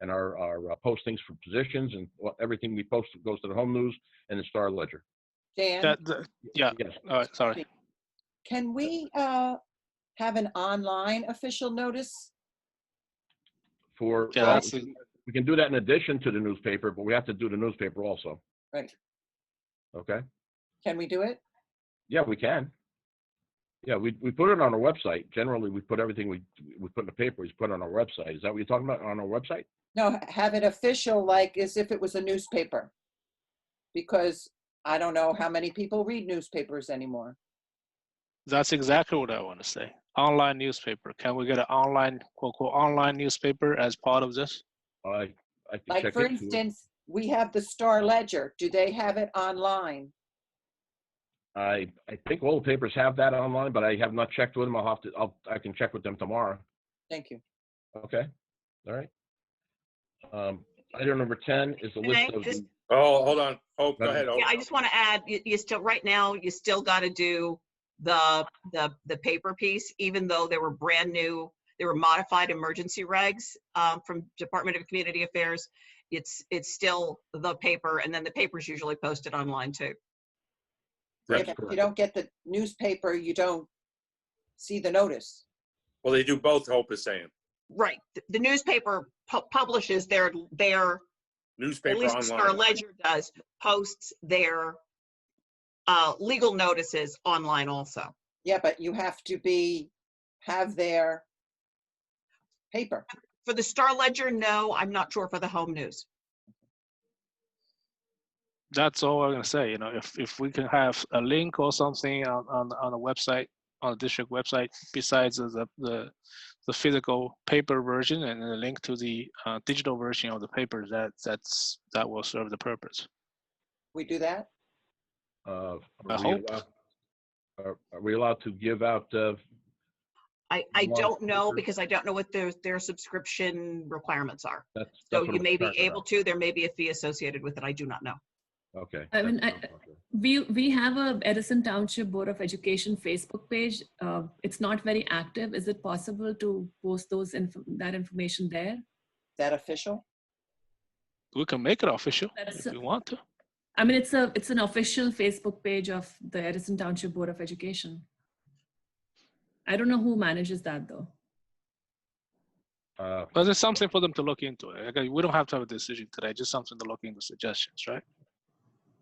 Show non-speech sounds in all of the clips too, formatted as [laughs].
and our, our uh, postings for positions and what- everything we post goes to the home news and the Star Ledger. Dan, That, that- yeah, Yes, all right, sorry. can we uh, have an online official notice? for, Yeah, well, that's the- we can do that in addition to the newspaper, but we have to do the newspaper also. Right. Okay, Can we do it? yeah, we can. Yeah, we, we put it on our website. Generally, we put everything we, we put in the paper, we put on our website. Is that what you're talking about, on our website? No, h- have it official, like as if it was a newspaper. Because I don't know how many people read newspapers anymore. That's exactly what I want to say. Online newspaper. Can we get an online, quote, quote, online newspaper as part of this? I, I can Like, check for into it. instance, we have the Star Ledger. Do they have it online? I, I think all the papers have that online, but I have not checked with them. I'll have to, I'll, I can check with them tomorrow. Thank you. Okay, all right. Um, item number ten is a Can list I of, just- the- Oh, hold on. Oh, go Madam- ahead. Hope. Yeah, I just want to add, you, you still, right now, you still got to do the, the, the paper piece, even though there were brand new, there were modified emergency regs um, from Department of Community Affairs. It's, it's still the paper, and then the paper's usually posted online too. That's If correct. you don't get the newspaper, you don't see the notice. Well, they do both, Hope is saying. Right, th- the newspaper pu- publishes their, their, at Newspaper least the Star online. Ledger does, posts their uh, legal notices online also. Yeah, but you have to be, have their paper. For the Star Ledger, no, I'm not sure for the home news. That's all I'm gonna say, you know, if, if we can have a link or something on, on, on a website, on the district website, besides the, the, the physical paper version and a link to the, uh, digital version of the paper, that, that's, that will serve the purpose. We do that? uh, are I we hope. allowed- Are, are we allowed to give out, uh, I, I Lot of don't know papers. because I don't know what their, their subscription requirements are. that's. So that's what you I'm may be concerned able to, there may be a fee associated with it. I do not know. about. Okay. I mean, that's I- what I'm concerned. We, we have a Edison Township Board of Education Facebook page. Uh, It's not very active. Is it possible to post those, inf- that information there? that official? We can make it official That's- if we want to. I mean, it's a, it's an official Facebook page of the Edison Township Board of Education. I don't know who manages that, though. Uh, But it's something for them to look into. Like, uh, we don't have to have a decision today, just something to look into suggestions, right?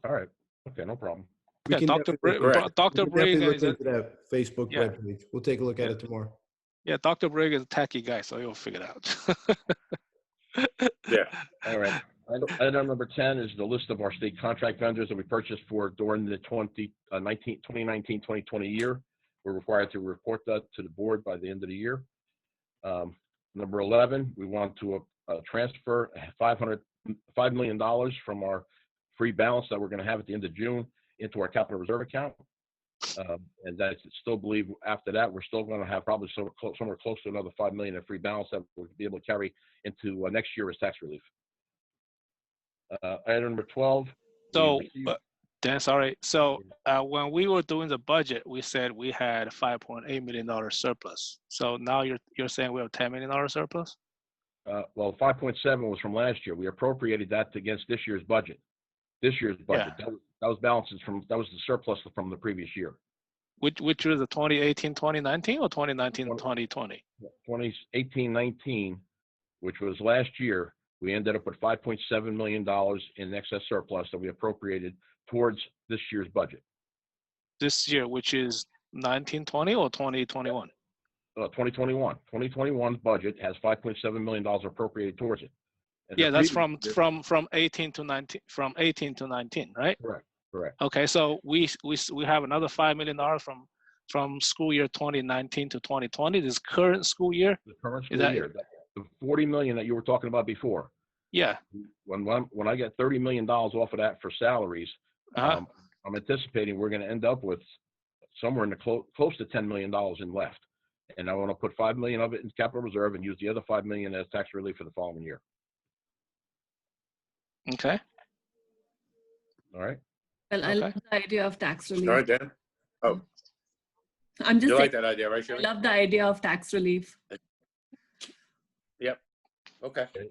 Uh, all right, okay, no problem. We Yeah, can Dr. definitely- Bra- Correct. we can Dr. Briggs definitely is look a, into that Facebook Yeah. webpage. We'll take a look at Yeah. it tomorrow. yeah, Dr. Briggs is a tacky guy, so he'll figure it out. Yeah. All right. Item- Item number 10 is the list of our state contract vendors that we purchased for during the 20, uh, 19, 2019, 2020 year. We're required to report that to the board by the end of the year. Um, Number 11, we want to uh, uh, transfer 500, $5 million dollars from our free balance that we're going to have at the end of June into our capital reserve account. Um, And I still believe after that, we're still going to have probably somewhere clo- somewhere close to another 5 million in free balance that we'll be able to carry into uh, next year as tax relief. Uh, Item number 12. we [laughs] So, received- uh, Dan, sorry. So, uh, when we were doing the budget, we said we had five point eight million dollar surplus. So now you're, you're saying we have ten million dollar surplus? uh, Well, 5.7 was from last year. We appropriated that against this year's budget. This year's budget. That was- that was balances from, that was the surplus from the previous year. Which, which was the 2018, 2019 or 2019 and Well- 2020? 2018, 19, which was last year, we ended up with $5.7 million in excess surplus that we appropriated towards this year's budget, This year, which is 1920 or 2021? Uh, 2021. 2021's budget has $5.7 million appropriated towards it. And the Yeah, that's previous from, year- from, from 18 to 19, from 18 to 19, right? Correct, correct. Okay, so we, s- we, s- we have another $5 million from, from school year 2019 to 2020, this current school year? The current Is school that- year, that- the 40 million that you were talking about before, Yeah, when, when I'm- when I get $30 million off of that for salaries, uh-huh, um, I'm anticipating we're going to end up with somewhere in the close, close to $10 million in left. And I want to put 5 million of it in capital reserve and use the other 5 million as tax relief for the following year. okay. All right. Well, I love Okay. the idea of tax All right, relief. Dan. I'm just You like saying, that idea, right, I Shirley? love the idea of tax relief. Okay.